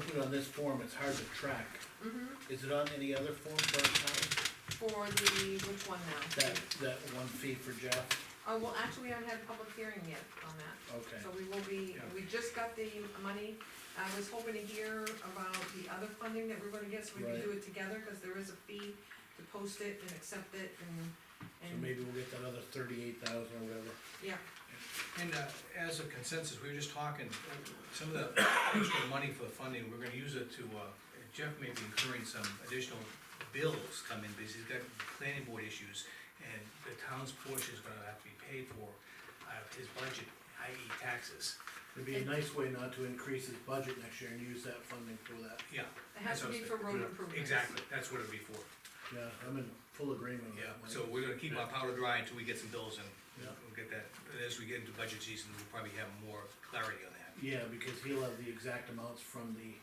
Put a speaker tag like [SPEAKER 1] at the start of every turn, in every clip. [SPEAKER 1] put on this form, it's hard to track.
[SPEAKER 2] Mhm.
[SPEAKER 1] Is it on any other form for our town?
[SPEAKER 2] for the, which one now?
[SPEAKER 1] That, that one fee for Jeff?
[SPEAKER 2] Oh, well, actually, we haven't had a public hearing yet on that.
[SPEAKER 1] Okay,
[SPEAKER 2] So we will be,
[SPEAKER 1] Yeah.
[SPEAKER 2] we just got the money, I was hoping to hear about the other funding that we're gonna get, so we can
[SPEAKER 1] Right.
[SPEAKER 2] do it together, cause there is a fee to post it and accept it
[SPEAKER 1] so
[SPEAKER 2] and, and,
[SPEAKER 1] maybe we'll get that other thirty-eight thousand or whatever.
[SPEAKER 2] yeah,
[SPEAKER 3] And uh, as a consensus, we were just talking, uh, some of the extra money for the funding, we're gonna use it to, uh, Jeff may be incurring some additional bills coming, because he's got planning board issues, and the town's portion is gonna have to be paid for out of his budget, i.e. taxes.
[SPEAKER 1] It'd be a nice way not to increase his budget next year and use that funding for that.
[SPEAKER 3] Yeah.
[SPEAKER 2] it has to
[SPEAKER 3] that's
[SPEAKER 2] be for
[SPEAKER 3] what I was
[SPEAKER 2] road
[SPEAKER 3] thinking.
[SPEAKER 2] improvements.
[SPEAKER 3] Exactly, that's what it'd be for,
[SPEAKER 1] Yeah, I'm in full agreement with
[SPEAKER 3] yeah,
[SPEAKER 1] that. Mike.
[SPEAKER 3] so we're gonna keep our powder dry until we get some bills in.
[SPEAKER 1] Yeah.
[SPEAKER 3] We'll get that, and as we get into budget season, we'll probably have more clarity on that.
[SPEAKER 1] Yeah, because he'll have the exact amounts from the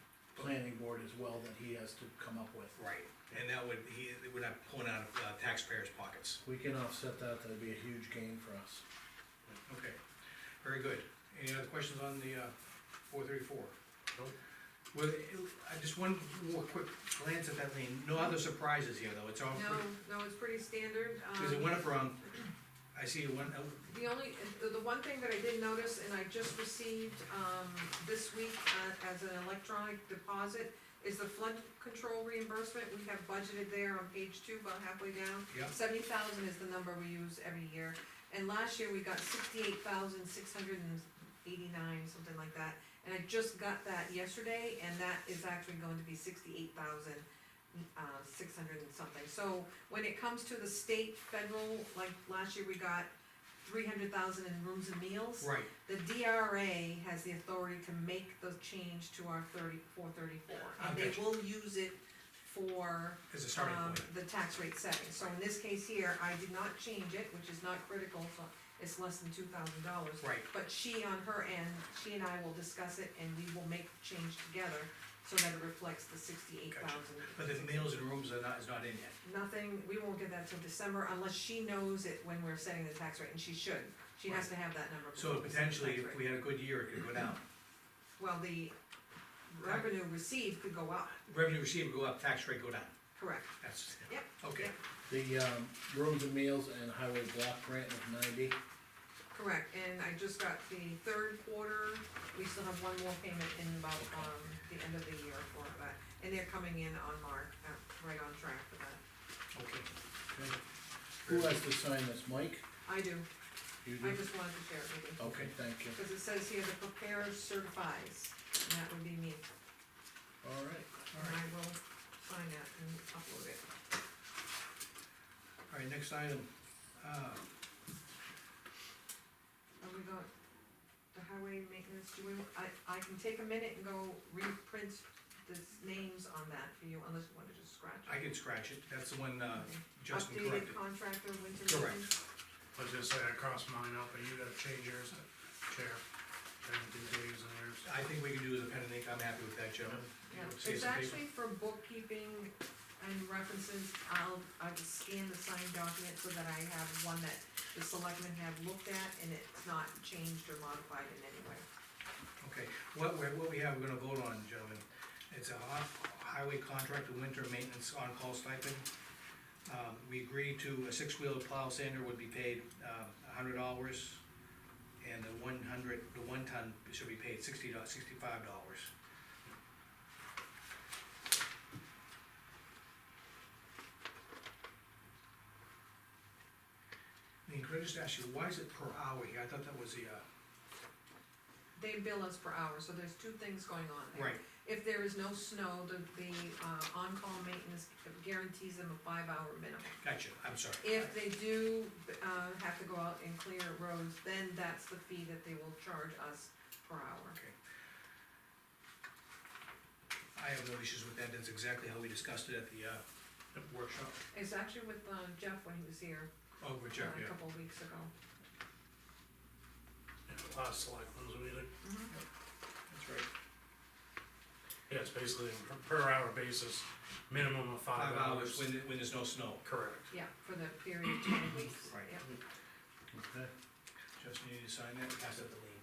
[SPEAKER 1] planning board as well that he has to come up with.
[SPEAKER 3] Right, and that would, he, we're not pulling out of uh, taxpayers' pockets.
[SPEAKER 1] We can offset that, that'd be a huge gain for us.
[SPEAKER 3] Okay, very good. Any other questions on the uh, four thirty-four?
[SPEAKER 1] Nope.
[SPEAKER 3] Well, I just one more quick glance at that lane, no other surprises here, though, it's all,
[SPEAKER 2] No, no, it's pretty standard, um.
[SPEAKER 3] because it went up around, I see it went, oh, up-
[SPEAKER 2] The only, the- the one thing that I did notice, and I just received, um, this week, uh, as an electronic deposit, is the flood control reimbursement, we have budgeted there on page two, about halfway down.
[SPEAKER 3] Yep.
[SPEAKER 2] Seventy thousand is the number we use every year, and last year we got sixty-eight thousand, six hundred and eighty-nine, something like that. And I just got that yesterday, and that is actually going to be sixty-eight thousand, uh, six hundred and something. So when it comes to the state, federal, like last year we got three hundred thousand in rooms and meals.
[SPEAKER 3] right,
[SPEAKER 2] The DRA has the authority to make the change to our thirty-four thirty-four, and they
[SPEAKER 3] Okay.
[SPEAKER 2] will use it for,
[SPEAKER 3] as a starting
[SPEAKER 2] um,
[SPEAKER 3] point.
[SPEAKER 2] the tax rate setting. So in this case here, I did not change it, which is not critical, so it's less than two thousand dollars.
[SPEAKER 3] Right,
[SPEAKER 2] But she on her end, she and I will discuss it and we will make the change together so that it reflects the sixty-eight thousand.
[SPEAKER 3] but the meals and rooms are not, is not in yet.
[SPEAKER 2] Nothing, we won't get that till December unless she knows it when we're setting the tax rate, and she should. She has to have that number.
[SPEAKER 3] So
[SPEAKER 2] before we set the
[SPEAKER 3] potentially,
[SPEAKER 2] tax
[SPEAKER 3] if
[SPEAKER 2] rate.
[SPEAKER 3] we had a good year, it could go down.
[SPEAKER 2] Well, the revenue received could go up,
[SPEAKER 3] Revenue received would go up, tax rate go down,
[SPEAKER 2] correct.
[SPEAKER 3] that's,
[SPEAKER 2] Yep,
[SPEAKER 3] okay,
[SPEAKER 2] yep.
[SPEAKER 1] The, um, rooms and meals and highway block grant of ninety,
[SPEAKER 2] Correct, and I just got the third quarter, we still have one more payment in about, um, the end of the year for that. And they're coming in on mark, uh, right on track for that.
[SPEAKER 3] okay.
[SPEAKER 1] okay? Who has to sign this, Mike?
[SPEAKER 2] I do,
[SPEAKER 1] You
[SPEAKER 2] I
[SPEAKER 1] do?
[SPEAKER 2] just wanted to share it with you.
[SPEAKER 1] Okay, thank you.
[SPEAKER 2] Cause it says here the preparer certifies, and that would be me,
[SPEAKER 1] All right,
[SPEAKER 2] and I will sign that and upload it.
[SPEAKER 3] All right, next item, uh,
[SPEAKER 2] And we got the highway maintenance, do we, I, I can take a minute and go reprint the names on that for you, unless you wanna just scratch. it.
[SPEAKER 3] I can scratch it, that's the one, uh, Justin
[SPEAKER 2] Updated
[SPEAKER 3] corrected.
[SPEAKER 2] contractor, winter.
[SPEAKER 3] Correct.
[SPEAKER 2] meeting.
[SPEAKER 4] I was gonna say, I crossed mine out, but you gotta change yours, Chair. Trying to do Dave's and yours.
[SPEAKER 3] I think we can do the pen and ink, I'm happy with that, gentlemen.
[SPEAKER 2] Yeah, it's
[SPEAKER 3] Save some paper.
[SPEAKER 2] actually for bookkeeping and references, I'll, I will scan the signed document so that I have one that the selectmen have looked at and it's not changed or modified in any way.
[SPEAKER 3] Okay, what, we- what we have, we're gonna vote on, gentlemen, it's a hi- highway contract, winter maintenance on-call stipend. Um, we agreed to a six-wheel plow sander would be paid, uh, a hundred dollars, and the one hundred, the one ton should be paid sixty dollars, sixty-five dollars. Lean, could I just ask you, why is it per hour here? I thought that was the, uh,
[SPEAKER 2] They bill us per hour, so there's two things going on there.
[SPEAKER 3] right,
[SPEAKER 2] If there is no snow, the, the, uh, on-call maintenance guarantees them a five-hour minimum.
[SPEAKER 3] Gotcha, I'm sorry.
[SPEAKER 2] If they do, uh, have to go out and clear roads, then that's the fee that they will charge us per hour.
[SPEAKER 3] Okay. I have no issues with that, that's exactly how we discussed it at the, uh, workshop.
[SPEAKER 2] It's actually with uh, Jeff when he was here
[SPEAKER 3] Oh, good
[SPEAKER 2] uh,
[SPEAKER 3] job,
[SPEAKER 2] a
[SPEAKER 3] yeah.
[SPEAKER 2] couple of weeks ago.
[SPEAKER 4] And the last select ones we did,
[SPEAKER 3] That's right.
[SPEAKER 4] yeah, it's basically a per- per hour basis, minimum of
[SPEAKER 3] Five
[SPEAKER 4] five
[SPEAKER 3] hours
[SPEAKER 4] hours.
[SPEAKER 3] when, when there's no snow.
[SPEAKER 4] Correct.
[SPEAKER 2] Yeah, for the period of ten weeks,
[SPEAKER 3] Right.
[SPEAKER 2] yeah.
[SPEAKER 1] okay.
[SPEAKER 3] Justin, you need to sign that, pass that to Lean.